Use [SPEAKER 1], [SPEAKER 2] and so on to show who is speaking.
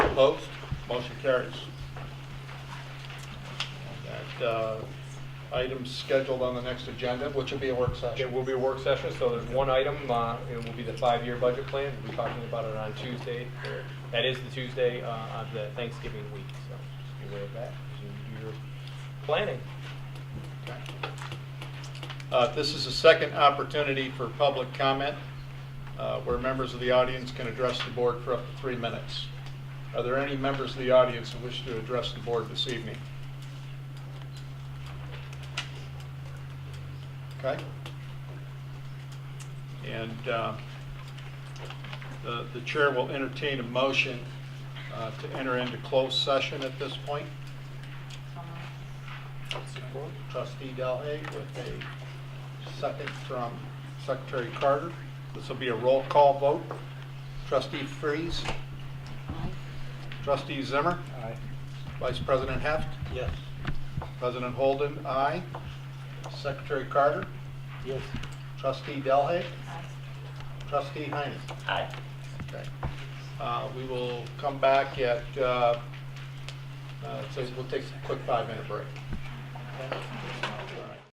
[SPEAKER 1] Opposed? Motion carries. That uh, item scheduled on the next agenda, which will be a work session.
[SPEAKER 2] It will be a work session, so there's one item, uh, it will be the five-year budget plan. We'll be talking about it on Tuesday, or that is the Tuesday uh, of the Thanksgiving week, so just be aware of that as you do your planning.
[SPEAKER 1] Okay. Uh, This is a second opportunity for public comment, uh, where members of the audience can address the board for up to three minutes. Are there any members of the audience who wish to address the board this evening? Okay? And uh, the the chair will entertain a motion uh, to enter into closed session at this point. Trustee Delhay with a second from Secretary Carter. This will be a roll call vote. Trustee Freeze? Trustee Zimmer?
[SPEAKER 2] Aye.
[SPEAKER 1] Vice President Heft?
[SPEAKER 2] Yes.
[SPEAKER 1] President Holden, aye. Secretary Carter?
[SPEAKER 2] Yes.
[SPEAKER 1] Trustee Delhay? Trustee Heine?
[SPEAKER 2] Aye.
[SPEAKER 1] Okay. Uh, We will come back at, uh, uh, so we'll take a quick five-minute break.